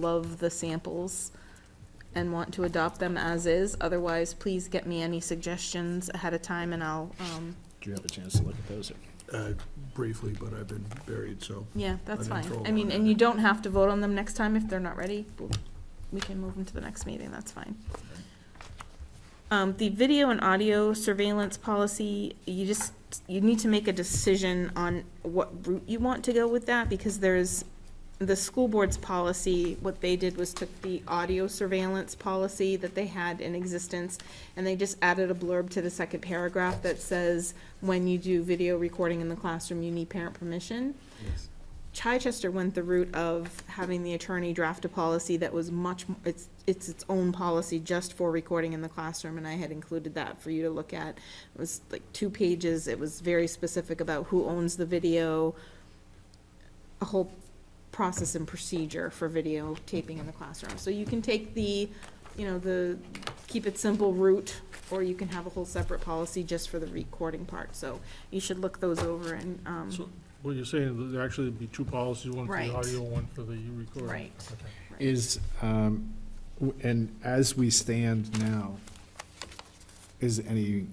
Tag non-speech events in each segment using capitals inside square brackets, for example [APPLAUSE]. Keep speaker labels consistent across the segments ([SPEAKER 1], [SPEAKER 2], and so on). [SPEAKER 1] love the samples and want to adopt them as is. Otherwise, please get me any suggestions ahead of time and I'll, um,
[SPEAKER 2] Do you have a chance to look at those?
[SPEAKER 3] Uh, Briefly, but I've been buried, so.
[SPEAKER 1] yeah, that's
[SPEAKER 3] I didn't
[SPEAKER 1] fine.
[SPEAKER 3] throw
[SPEAKER 1] I mean,
[SPEAKER 3] one
[SPEAKER 1] and
[SPEAKER 3] in.
[SPEAKER 1] you don't have to vote on them next time if they're not ready. We can move them to the next meeting, that's fine. Um, the video and audio surveillance policy, you just, you need to make a decision on what route you want to go with that because there's the school board's policy, what they did was took the audio surveillance policy that they had in existence, and they just added a blurb to the second paragraph that says, when you do video recording in the classroom, you need parent permission. Chichester went the route of having the attorney draft a policy that was much, m- it's, it's its own policy just for recording in the classroom, and I had included that for you to look at. It was like two pages, it was very specific about who owns the video, a whole process and procedure for videotaping in the classroom. So you can take the, you know, the keep it simple route, or you can have a whole separate policy just for the recording part. So you should look those over and, um,
[SPEAKER 4] So- Well, you're saying that there actually be two policies, one for
[SPEAKER 1] Right.
[SPEAKER 4] the audio, one for the recording?
[SPEAKER 1] right.
[SPEAKER 4] Okay.
[SPEAKER 2] Is, um, w- and as we stand now, is any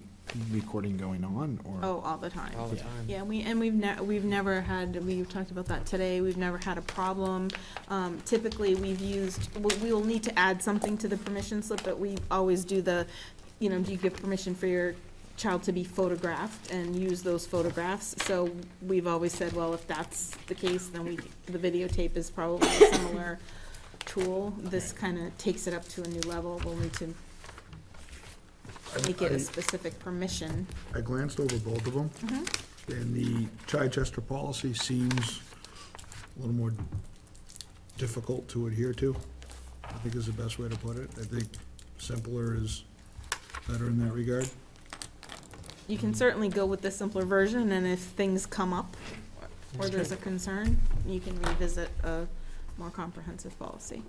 [SPEAKER 2] recording going on or?
[SPEAKER 1] Oh, all the time.
[SPEAKER 5] All the
[SPEAKER 2] Yeah.
[SPEAKER 5] time.
[SPEAKER 1] Yeah, we, and we've ne- we've never had, we've talked about that today, we've never had a problem. Um, typically, we've used, we, we will need to add something to the permission slip, but we always do the, you know, do you give permission for your child to be photographed and use those photographs? So we've always said, well, if that's the case, then we, the videotape is probably a similar tool. This kinda takes it up to a new level, we'll need to make it a
[SPEAKER 3] I-
[SPEAKER 1] specific permission.
[SPEAKER 3] I glanced over both of them, and the Chichester policy seems a little more difficult to adhere to, I think is the best way to put it. I think simpler is better in that regard.
[SPEAKER 1] You can certainly go with the simpler version, and if things come up or there's a concern, you can revisit a more comprehensive policy.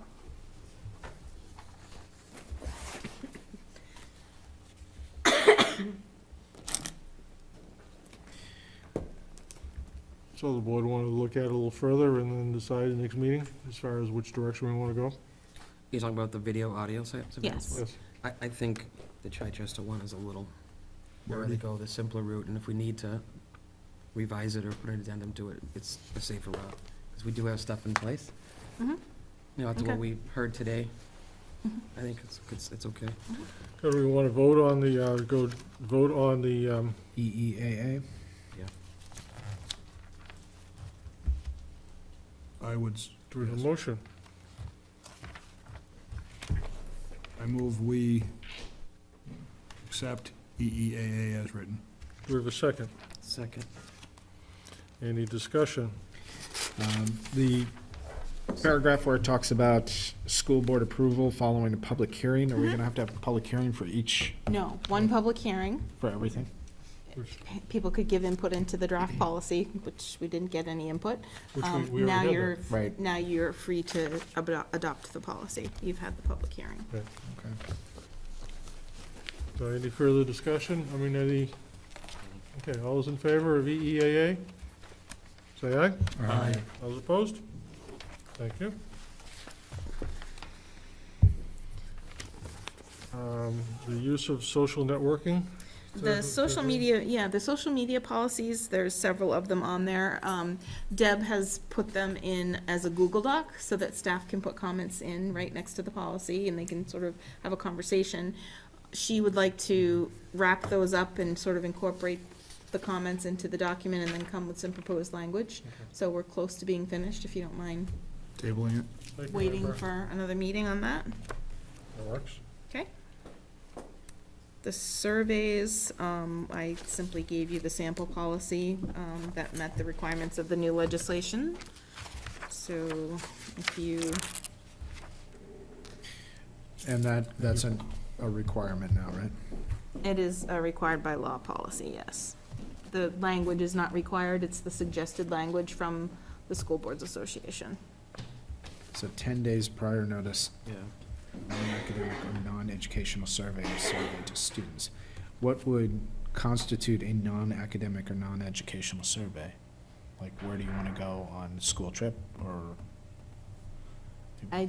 [SPEAKER 4] So the board wanted to look at it a little further and then decide the next meeting as far as which direction we want to go?
[SPEAKER 5] You're talking about the video audio se- surveillance?
[SPEAKER 1] Yes.
[SPEAKER 5] one? I, I think the Chichester one is a little, we're
[SPEAKER 3] Already.
[SPEAKER 5] gonna go the simpler route, and if we need to revise it or put an addendum to it, it's a safer route, because we do have stuff in place.
[SPEAKER 1] Mhm.
[SPEAKER 5] You know, after
[SPEAKER 1] Okay.
[SPEAKER 5] what we heard today,
[SPEAKER 1] Mhm.
[SPEAKER 5] I think it's, it's, it's okay.
[SPEAKER 4] Do we want to vote on the, uh, go, vote on the, um,
[SPEAKER 2] E EEAA?
[SPEAKER 3] I would, s-
[SPEAKER 4] do we have a
[SPEAKER 3] Yes.
[SPEAKER 4] motion?
[SPEAKER 3] I move we accept E EEAA as written.
[SPEAKER 4] Do we have a second?
[SPEAKER 5] Second.
[SPEAKER 4] Any discussion?
[SPEAKER 2] Um, The paragraph where it talks about school board approval following a public hearing, are we gonna have to have a public hearing for each,
[SPEAKER 1] No, one public hearing,
[SPEAKER 2] for everything?
[SPEAKER 4] Which,
[SPEAKER 1] P- people could give input into the
[SPEAKER 4] [CLEARS THROAT]
[SPEAKER 1] draft policy, which we didn't get any input.
[SPEAKER 4] which we-
[SPEAKER 1] Um,
[SPEAKER 4] we
[SPEAKER 1] Now
[SPEAKER 4] already
[SPEAKER 1] you're,
[SPEAKER 4] had
[SPEAKER 2] Right.
[SPEAKER 1] now you're free to abo- adopt the policy. You've had the public hearing.
[SPEAKER 2] Okay.
[SPEAKER 4] that. So Any further discussion? I mean, any, okay, all those in favor of E EEAA? Say aye.
[SPEAKER 3] Aye.
[SPEAKER 4] All those opposed? Thank you. Um, The use of social networking?
[SPEAKER 1] The social media, yeah, the social media policies, there's several of them on there. Um, Deb has put them in as a Google Doc so that staff can put comments in right next to the policy and they can sort of have a conversation. She would like to wrap those up and sort of incorporate the comments into the document and then come with some proposed language. So we're close to being finished, if you don't mind
[SPEAKER 3] Tabling it.
[SPEAKER 4] Thank you,
[SPEAKER 1] waiting
[SPEAKER 4] Amber.
[SPEAKER 1] for another meeting on that.
[SPEAKER 4] That works.
[SPEAKER 1] The surveys, um, I simply gave you the sample policy, um, that met the requirements of the new legislation. So if you,
[SPEAKER 2] And that, that's a, a requirement now, right?
[SPEAKER 1] it is a required by law policy, yes. The language is not required, it's the suggested language from the School Boards Association.
[SPEAKER 2] So ten days prior notice
[SPEAKER 5] Yeah.
[SPEAKER 2] non-academic or non-educational survey or survey to students. What would constitute a non-academic or non-educational survey? Like, where do you want to go on school trip or?